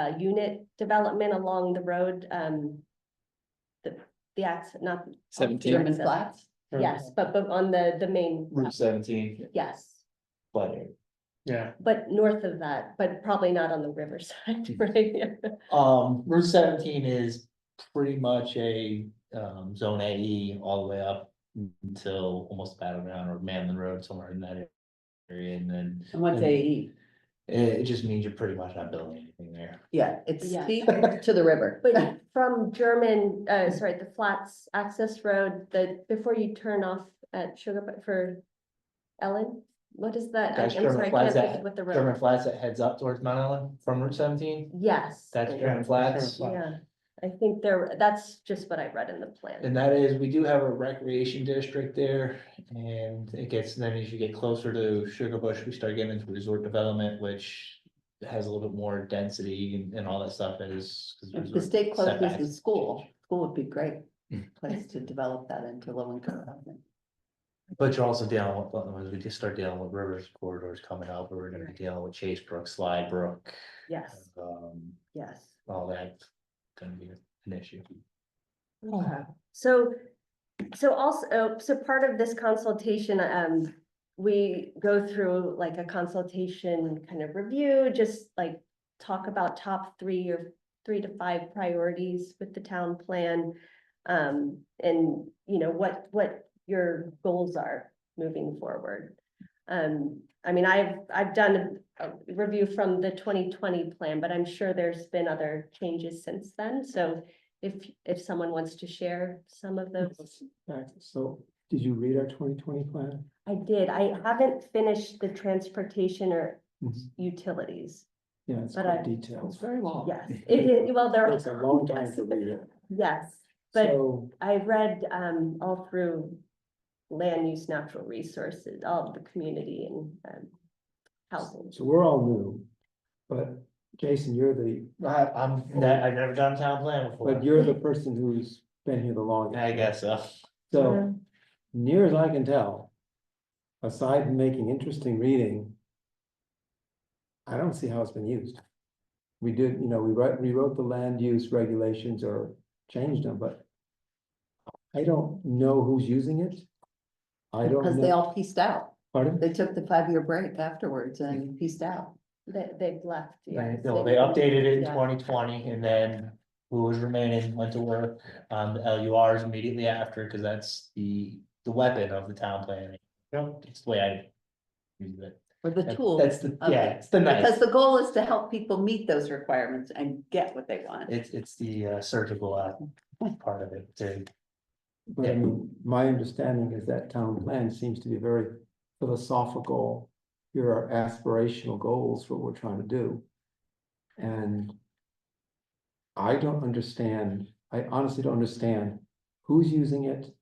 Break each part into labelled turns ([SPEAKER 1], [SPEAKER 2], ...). [SPEAKER 1] uh, unit development along the road, um. The, the acts, not,
[SPEAKER 2] Seventeen,
[SPEAKER 3] German flats.
[SPEAKER 1] yes, but, but on the, the main,
[SPEAKER 2] Route seventeen,
[SPEAKER 1] yes.
[SPEAKER 2] flood area.
[SPEAKER 4] Yeah,
[SPEAKER 1] But north of that, but probably not on the
[SPEAKER 2] Hmm.
[SPEAKER 1] riverside, right?
[SPEAKER 2] Um, Route seventeen is pretty much a, um, zone AE all the way up until almost Battleground or Manland Road, somewhere in that area, and then
[SPEAKER 3] And what's AE?
[SPEAKER 2] it, it just means you're pretty much not building anything there.
[SPEAKER 3] Yeah, it's
[SPEAKER 1] Yeah.
[SPEAKER 3] steep to the river.
[SPEAKER 1] But from German, uh, sorry, the Flats Access Road, the, before you turn off at Sugar Bu- for Ellen, what is that? I- I'm
[SPEAKER 2] That's German
[SPEAKER 1] sorry, I can't
[SPEAKER 2] Flats
[SPEAKER 1] think
[SPEAKER 2] at-
[SPEAKER 1] of What the road,
[SPEAKER 2] German Flats that heads up towards Mount Island from Route seventeen,
[SPEAKER 1] yes.
[SPEAKER 2] that's German
[SPEAKER 4] German
[SPEAKER 2] Flats.
[SPEAKER 4] Flats.
[SPEAKER 1] Yeah, I think there, that's just what I read in the plan.
[SPEAKER 2] And that is, we do have a recreation district there, and it gets, then as you get closer to Sugar Bush, we start getting into resort development, which. Has a little bit more density and, and all that stuff that is. 'cause
[SPEAKER 3] If the
[SPEAKER 2] resort
[SPEAKER 3] state closes the
[SPEAKER 2] setbacks. Mm.
[SPEAKER 3] school, school would be great place to develop that into low income housing.
[SPEAKER 2] But you're also dealing with, otherwise we just start dealing with rivers corridors coming up, we're gonna be dealing with Chase Brook, Slide Brook,
[SPEAKER 1] Yes,
[SPEAKER 2] um,
[SPEAKER 1] yes.
[SPEAKER 2] all that. Gonna be an issue.
[SPEAKER 1] Okay. So, so also, oh, so part of this consultation, um, we go through like a consultation kind of review, just like talk about top three or three to five priorities with the town plan. Um, and you know, what, what your goals are moving forward. Um, I mean, I've, I've done a review from the twenty twenty plan, but I'm sure there's been other changes since then, so if, if someone wants to share some of those.
[SPEAKER 4] so did you read our twenty twenty plan?
[SPEAKER 1] I did, I haven't finished the transportation or
[SPEAKER 4] Mhm.
[SPEAKER 1] utilities.
[SPEAKER 4] Yeah, it's
[SPEAKER 1] But
[SPEAKER 4] quite
[SPEAKER 1] I-
[SPEAKER 4] detailed.
[SPEAKER 3] very long.
[SPEAKER 1] Yes, it, it- well, there.
[SPEAKER 4] Oh. It's a long time to read it.
[SPEAKER 1] Yes, but
[SPEAKER 4] So,
[SPEAKER 1] I read, um, all through land use, natural resources, all of the community and, um, housing.
[SPEAKER 4] so we're all new, but Jason, you're the,
[SPEAKER 2] I, I'm, ne- I've never done a town plan before.
[SPEAKER 4] but you're the person who's been here the longest.
[SPEAKER 2] I guess so.
[SPEAKER 4] So near as I can tell, aside from making interesting reading, I don't see how it's been used. We did, you know, we wrote, rewrote the land use regulations or changed them, but I don't know who's using it. I
[SPEAKER 3] Because
[SPEAKER 4] don't
[SPEAKER 3] they
[SPEAKER 4] know,
[SPEAKER 3] all pieced out.
[SPEAKER 4] pardon?
[SPEAKER 3] They took the five-year break afterwards and pieced out.
[SPEAKER 1] They, they've left.
[SPEAKER 2] They,
[SPEAKER 1] yes,
[SPEAKER 2] no, they updated it in
[SPEAKER 1] Yeah.
[SPEAKER 2] twenty twenty and then who was remaining went to work on the L U Rs immediately after, cause that's the, the weapon of the town planning. It's the way I. use it.
[SPEAKER 3] Or the
[SPEAKER 2] That-
[SPEAKER 3] tool.
[SPEAKER 2] That's the,
[SPEAKER 3] of
[SPEAKER 2] yeah,
[SPEAKER 3] it.
[SPEAKER 2] it's the knife.
[SPEAKER 3] Because the goal is to help people meet those requirements and get what they want.
[SPEAKER 2] It's, it's the uh, surgical uh, part of it to
[SPEAKER 4] But I mean, my understanding is that town plan seems to be very philosophical. Here are aspirational goals for what we're trying to do. And I don't understand, I honestly don't understand who's using it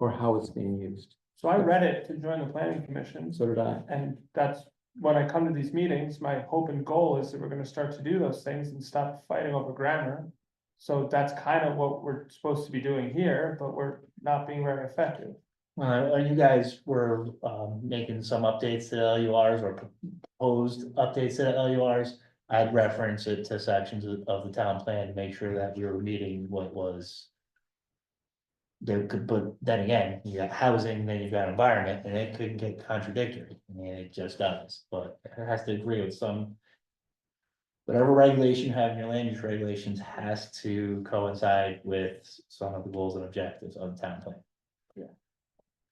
[SPEAKER 4] or how it's being used.
[SPEAKER 5] So I read it to join the planning commission,
[SPEAKER 4] So did I.
[SPEAKER 5] and that's, when I come to these meetings, my hope and goal is that we're gonna start to do those things and stop fighting over grammar. So that's kind of what we're supposed to be doing here, but we're not being very effective.
[SPEAKER 2] Uh, you guys were, um, making some updates to LURs or proposed updates to LURs. I'd reference it to sections of, of the town plan to make sure that we were meeting what was. They could, but then again, you got housing, then you've got environment, and it couldn't get contradictory, I mean, it just does, but it has to agree with some. Whatever regulation you have in your land use regulations has to coincide with some of the goals and objectives of the town plan.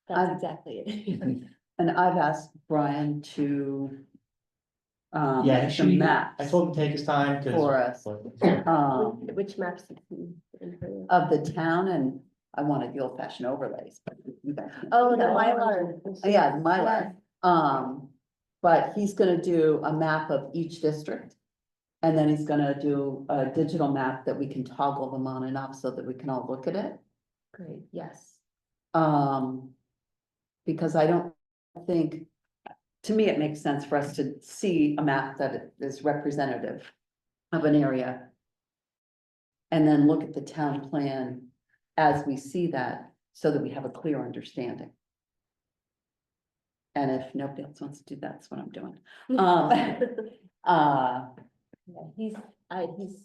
[SPEAKER 1] That's
[SPEAKER 3] I'm-
[SPEAKER 1] exactly it.
[SPEAKER 3] And I've asked Brian to um,
[SPEAKER 2] Yeah,
[SPEAKER 3] make
[SPEAKER 2] he
[SPEAKER 3] some
[SPEAKER 2] should-
[SPEAKER 3] maps
[SPEAKER 2] I told him to take his time,
[SPEAKER 3] for us,
[SPEAKER 2] cause. but-
[SPEAKER 3] um,
[SPEAKER 1] Which- Which maps? did you improve?
[SPEAKER 3] of the town and I wanted the old fashioned overlays. but you guys can-
[SPEAKER 1] Oh, the Mylar.
[SPEAKER 3] Oh, Yeah, the Mylar. Um, but he's gonna do a map of each district. And then he's gonna do a digital map that we can toggle them on and off so that we can all look at it.
[SPEAKER 1] Great, yes.
[SPEAKER 3] Um, because I don't think, to me, it makes sense for us to see a map that is representative of an area. And then look at the town plan as we see that, so that we have a clear understanding. And if nobody else wants to do that, that's what I'm doing. Um, Uh,
[SPEAKER 1] Yeah, He's, I, he's